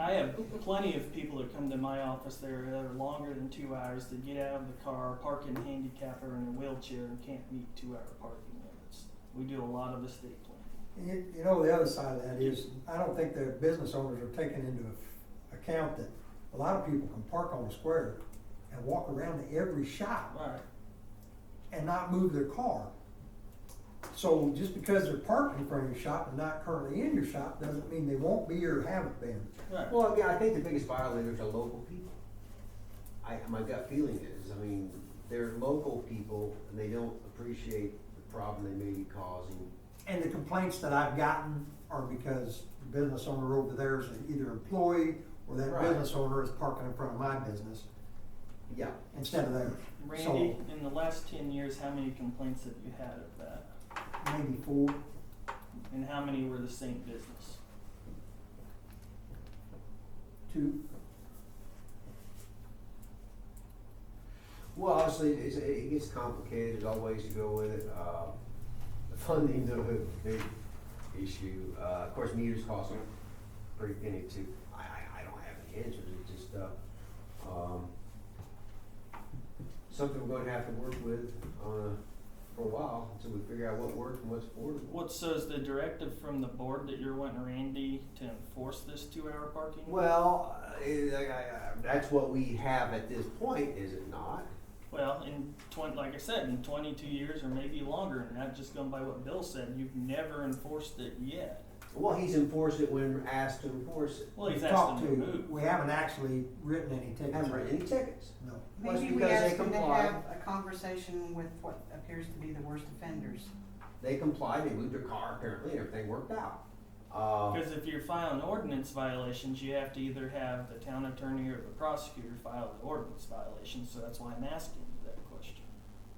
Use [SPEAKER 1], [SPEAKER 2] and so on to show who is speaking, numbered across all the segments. [SPEAKER 1] I have plenty of people that come to my office that are, that are longer than two hours that get out of the car, park in handicap or in a wheelchair and can't meet two hour parking limits. We do a lot of estate planning.
[SPEAKER 2] You, you know, the other side of that is, I don't think the business owners are taking into account that a lot of people can park on the square and walk around to every shop
[SPEAKER 1] Right.
[SPEAKER 2] and not move their car. So just because they're parked in front of your shop and not currently in your shop, doesn't mean they won't be or haven't been.
[SPEAKER 1] Right.
[SPEAKER 3] Well, yeah, I think the biggest violators are local people. I, my gut feeling is, I mean, they're local people and they don't appreciate the problem they may be causing.
[SPEAKER 2] And the complaints that I've gotten are because the business owner over there is either employee or that
[SPEAKER 3] Right.
[SPEAKER 2] business owner is parking in front of my business
[SPEAKER 3] Yeah,
[SPEAKER 2] instead of theirs.
[SPEAKER 1] Randy, in the last ten years, how many complaints have you had of that?
[SPEAKER 2] So maybe four,
[SPEAKER 1] And how many were the same business?
[SPEAKER 2] two,
[SPEAKER 3] well, obviously, it's, it gets complicated, there's always to go with it, uh, the funding's a big issue, uh, of course, meters cost a pretty penny too. I, I, I don't have any answers, it's just, uh, um, something we're gonna have to work with on a, for a while, until we figure out what works and what's affordable.
[SPEAKER 1] What says the directive from the board that you're wanting Randy to enforce this two hour parking?
[SPEAKER 3] Well, uh, I, I, I- that's what we have at this point, is it not?
[SPEAKER 1] Well, in twen- like I said, in twenty-two years or maybe longer, and not just going by what Bill said, you've never enforced it yet.
[SPEAKER 3] Well, he's enforced it when asked to enforce it.
[SPEAKER 1] Well, he's asked
[SPEAKER 2] talked
[SPEAKER 1] them
[SPEAKER 2] to.
[SPEAKER 1] to move.
[SPEAKER 2] We haven't actually written any tickets.
[SPEAKER 3] Haven't written any tickets.
[SPEAKER 2] No.
[SPEAKER 3] Well, it's
[SPEAKER 4] Maybe we
[SPEAKER 3] because they
[SPEAKER 4] ask them to
[SPEAKER 3] comply.
[SPEAKER 4] have a conversation with what appears to be the worst offenders.
[SPEAKER 3] They complied, they moved their car apparently, and everything worked out. Uh,
[SPEAKER 1] Because if you're filing ordinance violations, you have to either have the town attorney or the prosecutor file the ordinance violation, so that's why I'm asking you that question.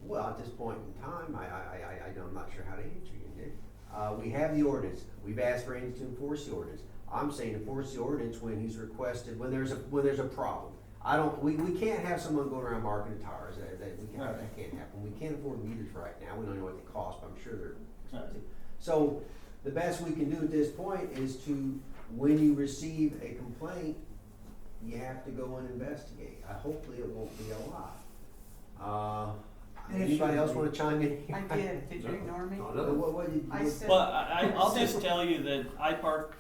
[SPEAKER 3] well, at this point in time, I, I, I, I, I'm not sure how to answer you, Nick. Uh, we have the ordinance, we've asked Randy to enforce the ordinance. I'm saying enforce the ordinance when he's requested, when there's a, when there's a problem. I don't, we, we can't have someone going around marking the tires, that, that, we can't, that can't happen. We can't afford meters right now, we don't know what they cost, but I'm sure they're expensive. So the best we can do at this point is to, when you receive a complaint, you have to go and investigate. Uh, Hopefully it won't be a lot. Uh,
[SPEAKER 2] And it
[SPEAKER 3] Anybody
[SPEAKER 2] shouldn't
[SPEAKER 3] else
[SPEAKER 2] be.
[SPEAKER 3] wanna chime in? here?
[SPEAKER 4] I did, did you ignore me?
[SPEAKER 3] No, no, what, what did you?
[SPEAKER 4] I said,
[SPEAKER 1] But I, I, I'll just tell you that I park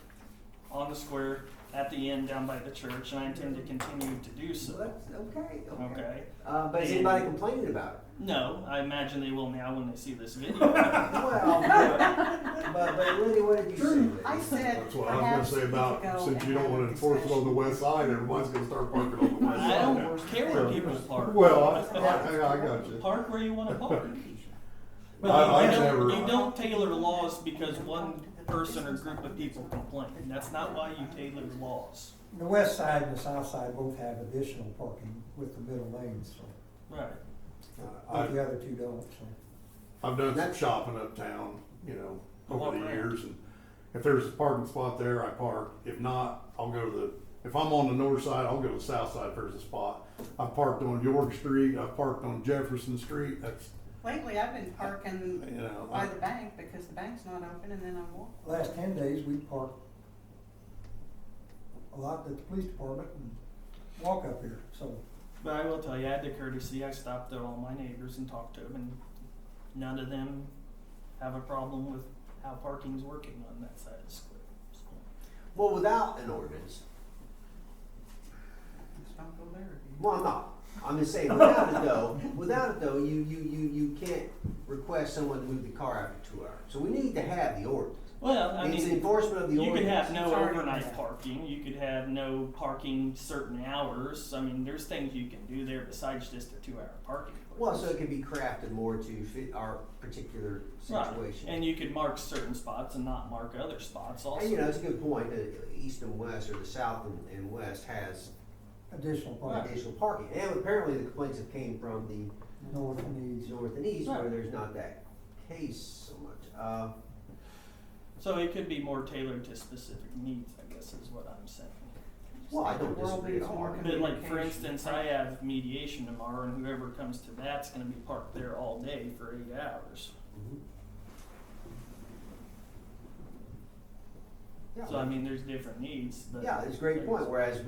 [SPEAKER 1] on the square at the end down by the church, and I intend to continue to do
[SPEAKER 3] Well,
[SPEAKER 1] so.
[SPEAKER 3] That's, okay, okay.
[SPEAKER 1] Okay?
[SPEAKER 3] Uh, but is
[SPEAKER 1] And-
[SPEAKER 3] anybody complaining about it?
[SPEAKER 1] No, I imagine they will now when they see this video.
[SPEAKER 3] Well, but, but- but Lindy, what did you say?
[SPEAKER 2] True.
[SPEAKER 3] Lindy?
[SPEAKER 4] I said,
[SPEAKER 5] That's what I
[SPEAKER 4] perhaps
[SPEAKER 5] was
[SPEAKER 4] we
[SPEAKER 5] gonna say
[SPEAKER 4] could
[SPEAKER 5] about,
[SPEAKER 4] go
[SPEAKER 5] since you
[SPEAKER 4] and
[SPEAKER 5] don't
[SPEAKER 4] have
[SPEAKER 5] wanna
[SPEAKER 4] a
[SPEAKER 5] enforce it on the
[SPEAKER 4] discussion.
[SPEAKER 5] west side, everyone's gonna start parking on the west
[SPEAKER 1] I
[SPEAKER 5] side.
[SPEAKER 1] don't care where people park.
[SPEAKER 5] Well, I, I I got you.
[SPEAKER 1] Park where you want to park. But
[SPEAKER 5] I-
[SPEAKER 1] you,
[SPEAKER 5] I've
[SPEAKER 1] don't,
[SPEAKER 5] never-
[SPEAKER 1] you don't tailor laws because one person or group of people complain. That's not why you tailor laws.
[SPEAKER 2] The west side and the south side both have additional parking with the middle lanes, so,
[SPEAKER 1] Right.
[SPEAKER 2] but
[SPEAKER 5] Uh, I,
[SPEAKER 2] the other two don't, so.
[SPEAKER 5] I've done some shopping uptown, you know, over the
[SPEAKER 1] Walk around.
[SPEAKER 5] years, and if there's a parking spot there, I park. If not, I'll go to the, if I'm on the north side, I'll go to the south side if there's a spot. I've parked on York Street, I've parked on Jefferson Street, that's,
[SPEAKER 4] Lately, I've been
[SPEAKER 5] you
[SPEAKER 4] parking
[SPEAKER 5] know,
[SPEAKER 4] by
[SPEAKER 5] I,
[SPEAKER 4] the bank because the bank's not open and then I walk.
[SPEAKER 2] Last ten days, we parked a lot at the police department and walk up here, so.
[SPEAKER 1] But I will tell you, I had the courtesy. I stopped at all my neighbors and talked to them, and none of them have a problem with how parking's working on that side of the square. So,
[SPEAKER 3] Well, without an ordinance,
[SPEAKER 4] Just don't go there again.
[SPEAKER 3] Well, I'm not. I'm just saying, without it though, without it though, you, you, you, you can't request someone to move the car after two hours. So we need to have the ordinance.
[SPEAKER 1] Well, I
[SPEAKER 3] It's
[SPEAKER 1] mean,
[SPEAKER 3] enforcement of the
[SPEAKER 1] You could
[SPEAKER 3] ordinance.
[SPEAKER 1] have no
[SPEAKER 4] It's already
[SPEAKER 1] overnight
[SPEAKER 4] there.
[SPEAKER 1] parking, you could have no parking certain hours, I mean, there's things you can do there besides just a two hour parking. place.
[SPEAKER 3] Well, so it could be crafted more to fit our particular
[SPEAKER 1] Right.
[SPEAKER 3] situation.
[SPEAKER 1] And you could mark certain spots and not mark other spots
[SPEAKER 3] And, you
[SPEAKER 1] also.
[SPEAKER 3] know, it's a good point, that east and west, or the south and, and west has
[SPEAKER 2] Additional parking,
[SPEAKER 3] additional parking. And apparently the complaints have came from the
[SPEAKER 2] north and east.
[SPEAKER 3] north and east, where
[SPEAKER 1] Right.
[SPEAKER 3] there's not that case so much. Uh,
[SPEAKER 1] So it could be more tailored to specific needs, I guess is what I'm saying.
[SPEAKER 3] well, I
[SPEAKER 4] The
[SPEAKER 3] don't
[SPEAKER 4] world
[SPEAKER 3] disagree at
[SPEAKER 4] needs
[SPEAKER 3] all.
[SPEAKER 4] more
[SPEAKER 1] But like, for
[SPEAKER 4] Communication.
[SPEAKER 1] instance, I have mediation tomorrow and whoever comes to that's gonna be parked there all day for eight
[SPEAKER 3] mm-hmm.
[SPEAKER 1] hours.
[SPEAKER 3] Mhm.
[SPEAKER 1] Yeah.
[SPEAKER 6] So I mean, there's different needs, but.
[SPEAKER 1] Yeah, it's a great point, whereas